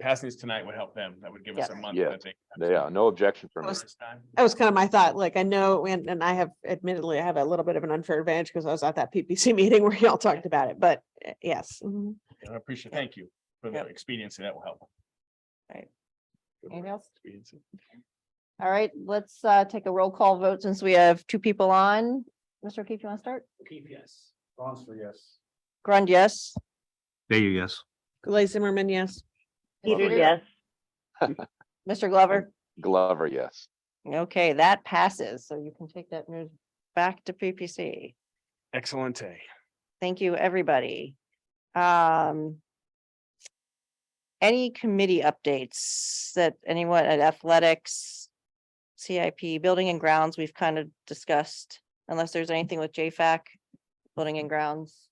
passing this tonight would help them. That would give us a Yeah. month. Yeah, that they can have Yeah, no objection from me. some first time. That was kind of my thought, like, I know, and, and I have admittedly, I have a little bit of an unfair advantage because I was at that PPC meeting where y'all talked about it, but eh, yes. mhm. I appreciate, thank you for the Yep. expediency. That will help. Right. Good Anything word, else? expediency. All right, let's uh take a roll call vote since we have two people on. Mr. O'Keefe, you want to start? PPS. Bronster, yes. Grund, yes. There you yes. Glaze Zimmerman, yes. Peter, yes. Mr. Glover, Glover, yes. okay, that passes, so you can take that news back to PPC. Excellent day. Thank you, everybody. Um. Any committee updates that anyone at athletics? CIP, building and grounds, we've kind of discussed, unless there's anything with JFAC, building and grounds.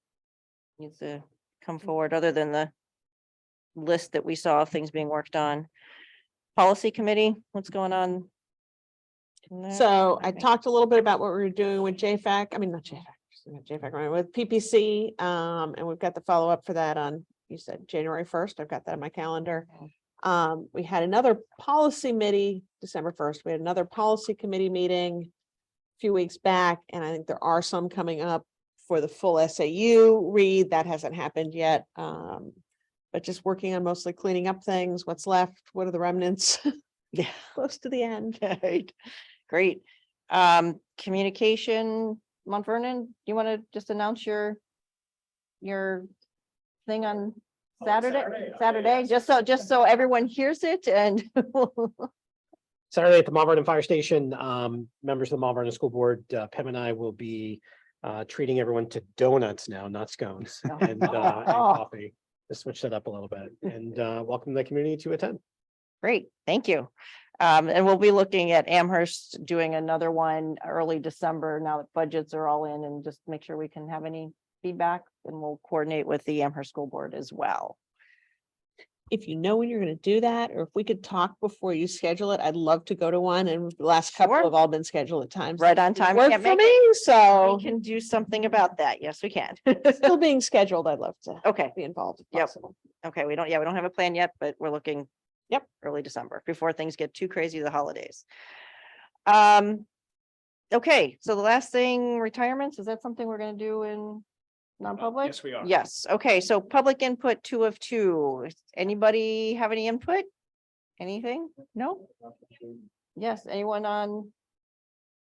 Needs to Mm-hmm. come forward, other than the. List that we saw of things being worked on. Policy committee, what's going on? in there? So I Okay. talked a little bit about what we were doing with JFAC, I mean, not JFAC, sorry, not JFAC, right, with PPC, um, and we've got the follow-up for that on, you said January first, I've got that on my calendar. Um, we had another policy committee, December first, we had another policy committee meeting a few weeks back, and I think there are some coming up for the full SAU read, that hasn't happened yet. Um, but just working on mostly cleaning up things, what's left, what are the remnants, Yeah. close to the end. Right, great. Um, communication, Mont Vernon, do you want to just announce your, your thing on Oh, it's Saturday, Saturday, okay, Saturday, yes. just so, just so everyone hears it and Saturday at the Mount Vernon Fire Station, um, members of the Mount Vernon School Board, uh, Pam and I will be uh, treating everyone to donuts now, not scones and, uh, and coffee. To switch that up a little bit and, uh, welcome the community to attend. Great, thank you. Um, and we'll be looking at Amherst doing another one early December now that budgets are all in and just make sure we can have any feedback and we'll coordinate with the Amherst School Board as well. if you know when you're gonna do that, or if we could talk before you schedule it, I'd love to go to one, and the last couple Sure. have all been scheduled at times. Right on that time. Work can't for make it. me, so, We can do something about that. Yes, we can. still being scheduled, I'd love to Okay, be involved if Oh. Yep. possible. okay, we don't, yeah, we don't have a plan yet, but we're looking. Yep. Early December, before things get too crazy, the holidays. Um, okay, so the last thing, retirements, is that something we're gonna do in non-public? Uh, Yes, we are. Yes, okay, so public input two of two. Anybody have any input? Anything? No? Yes, anyone on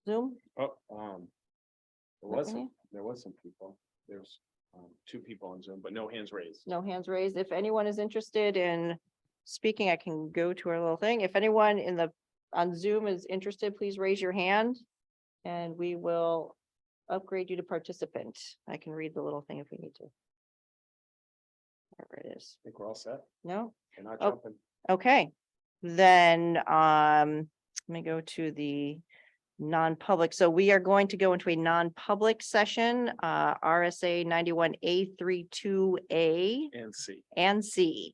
Zoom? Oh, um, there was, some- Any? there was some people, there's, um, two people on Zoom, but no hands raised. no hands raised. If anyone is interested in speaking, I can go to our little thing. If anyone in the, on Zoom is interested, please raise your hand. And we will upgrade you to participant. I can read the little thing if we need to. Whatever it is. I think we're all set. No? They're not Oh. jumping. Okay, then, um, let me go to the non-public. So we are going to go into a non-public session, uh, RSA ninety-one A 32 A And see. and C.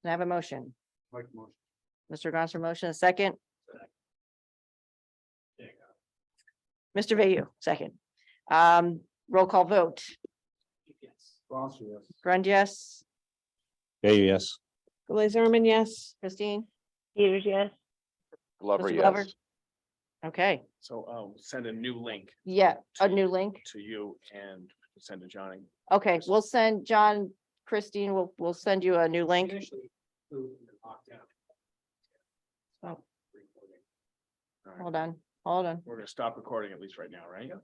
Can I have a motion? Mike, motion. Mr. Gosser motion, a second. There you Mr. Vayou, second. Um, roll call vote. Bronster, yes. Grund, yes. There you yes. Glaze Zimmerman, yes. Christine? Peters, yes. Glover, Mr. Glover? yes. Okay, So, um, send a new link yeah, a to- new link. to you and send to Johnny. Okay, we'll send John, Christine, we'll, we'll send you a new link. Oh, All right, Hold on, hold on. We're gonna stop recording at least right now, right?